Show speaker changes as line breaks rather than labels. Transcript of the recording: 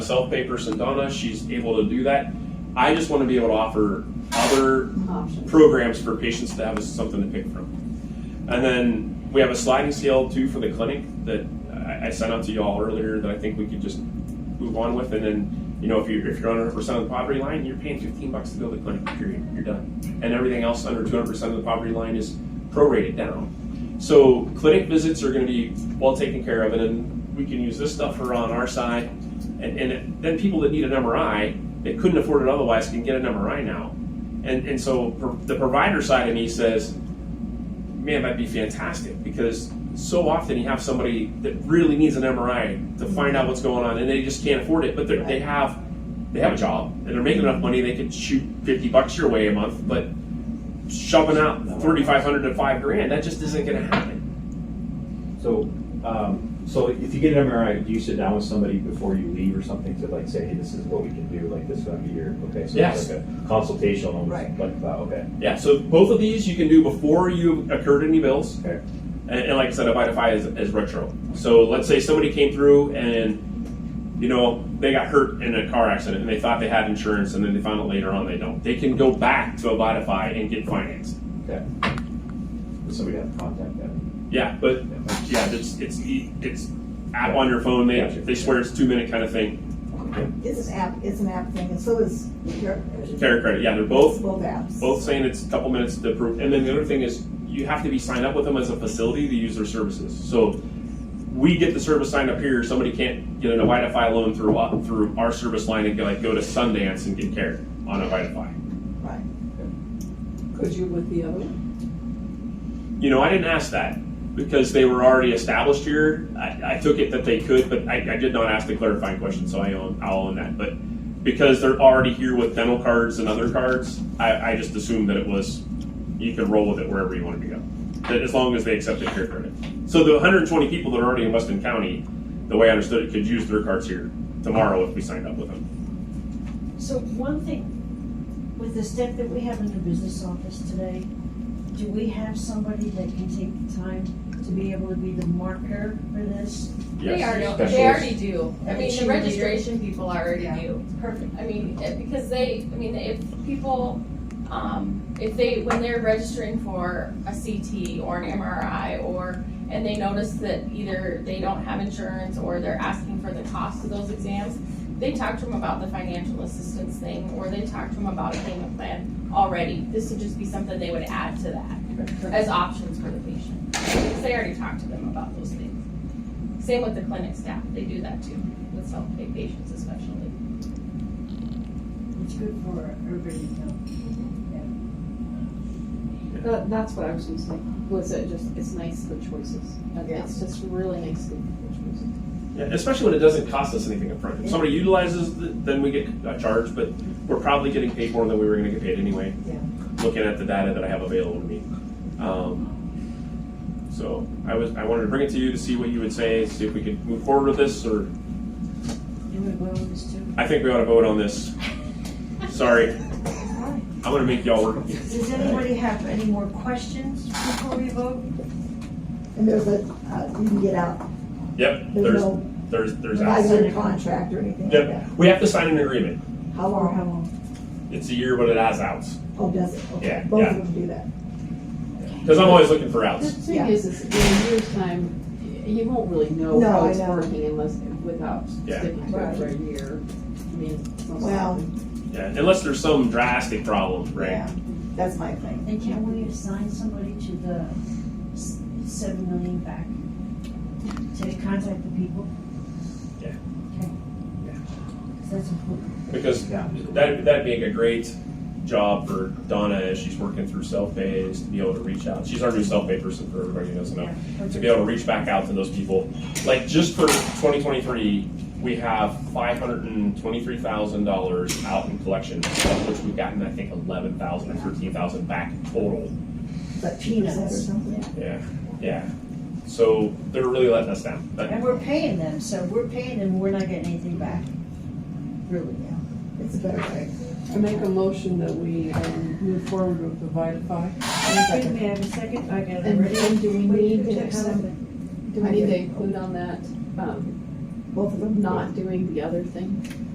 myself paper, Sendana, she's able to do that. I just want to be able to offer other
options.
programs for patients to have something to pick from. And then we have a sliding scale too for the clinic that I, I sent out to y'all earlier that I think we could just move on with. And then, you know, if you're, if you're under 100% of the poverty line, you're paying 15 bucks to go to the clinic, period, you're done. And everything else under 200% of the poverty line is prorated down. So clinic visits are gonna be well taken care of and then we can use this stuff for on our side. And, and then people that need an MRI, that couldn't afford it otherwise, can get an MRI now. And, and so pro- the provider side of me says, man, that'd be fantastic because so often you have somebody that really needs an MRI to find out what's going on and they just can't afford it, but they're- they have they have a job and they're making enough money they could shoot fifty bucks your way a month, but shoving out thirty five hundred to five grand that just isn't going to happen.
So, um, so if you get an MRI, do you sit down with somebody before you leave or something to like say, hey, this is what we can do, like this is gonna be your, okay, so
Yes.
it's like a consultation, almost
Right.
like, that, okay,
Yeah, so both of these you can do before you accrued any bills.
okay.
And, and like I said, Abidify is, is retro. So let's say somebody came through and, you know, they got hurt in a car accident and they thought they had insurance and then they found out later on they don't. They can go back to Abidify and get financed.
Okay. Does somebody have to contact them?
Yeah, but yeah, it's, it's, e- it's app on your phone. They,
Gotcha.
they swear it's two minute kind of thing.
It's an app, it's an app thing, and so is your.
Carrier credit. Yeah, they're both,
Both apps.
both saying it's a couple minutes to approve. And then the other thing is you have to be signed up with them as a facility to use their services. So we get the service signed up here, somebody can't get an Wi-Fi loan through, uh, through our service line and go, like go to Sundance and get care on a Wi-Fi.
Right.
Because you're with the other one?
You know, I didn't ask that because they were already established here. I, I took it that they could, but I, I did not ask the clarifying question, so I own, I'll own that. But because they're already here with dental cards and other cards, I, I just assumed that it was, you could roll with it wherever you wanted to go. That as long as they accepted care credit. So the hundred and twenty people that are already in Weston County, the way I understood it, could use their cards here tomorrow if we signed up with them.
So one thing, with the step that we have in the business office today, do we have somebody that can take the time to be able to be the marker for this?
They
Yes.
already,
specialist.
they already do. I mean, the
Cheerleader.
registration people already
Yeah.
do. Perfect. I mean, it- because they, I mean, if people, um, if they, when they're registering for a CT or an MRI or, and they notice that either they don't have insurance or they're asking for the cost of those exams, they talk to them about the financial assistance thing, or they talk to them about a payment plan already. This would just be something they would add to that as options for the patient. Because they already talked to them about those things. Same with the clinic staff, they do that too, with self-pay patients especially.
It's good for everybody to know.
That, that's what I was gonna say, was it just, it's nice good choices. And
Yeah.
It's just really nice good good choices.
Yeah, especially when it doesn't cost us anything upfront. If somebody utilizes, the- then we get a charge, but we're probably getting paid more than we were gonna get paid anyway.
Yeah.
Looking at the data that I have available to me. Um, So I was, I wanted to bring it to you to see what you would say, see if we could move forward with this, or
Do we well with this too?
I think we ought to vote on this. Sorry, I'm gonna make y'all work.
Does anybody have any more questions before we vote?
And there's a, uh, you can get out,
Yep,
there's
there's,
no,
there's, there's.
not a contract or anything like
Yep,
that.
we have to sign an agreement.
How long, how long?
It's a year, but it has outs.
Oh, does it? Okay.
Yeah,
Both
yeah.
of them do that.
Cause I'm always looking for
The
outs.
thing
Yeah.
is, is in a year's time, y- you won't really know
No,
how
I
it's
know.
working unless, without
Yeah.
sticking to it for a year. I mean, it's not
Well,
something-
Yeah, unless there's some drastic problem, right?
yeah, that's my thing.
And can we assign somebody to the s- seven million back? To contact the people?
Yeah.
Okay.
Yeah.
Because that's important.
Because
Yeah.
That that'd be a great job for Donna as she's working through self pay is to be able to reach out. She's our new self pay person for everybody who doesn't know. To be able to reach back out to those people. Like just for twenty twenty three, we have five hundred and twenty three thousand dollars out in collections, of which we've gotten I think eleven thousand or thirteen thousand back total.
But peanuts or something.
Yeah. Yeah. So they're really letting us down. But
And we're paying them, so we're paying them, we're not getting anything back. Really, yeah.
It's a better way.
I make a motion that we, um, move forward with the Vitify.
Okay, May I have a second? I got it
And
ready.
then do we
Wait,
need
there's
to
a
have,
second.
do we need to include on that, um,
both of them?
not doing the other thing.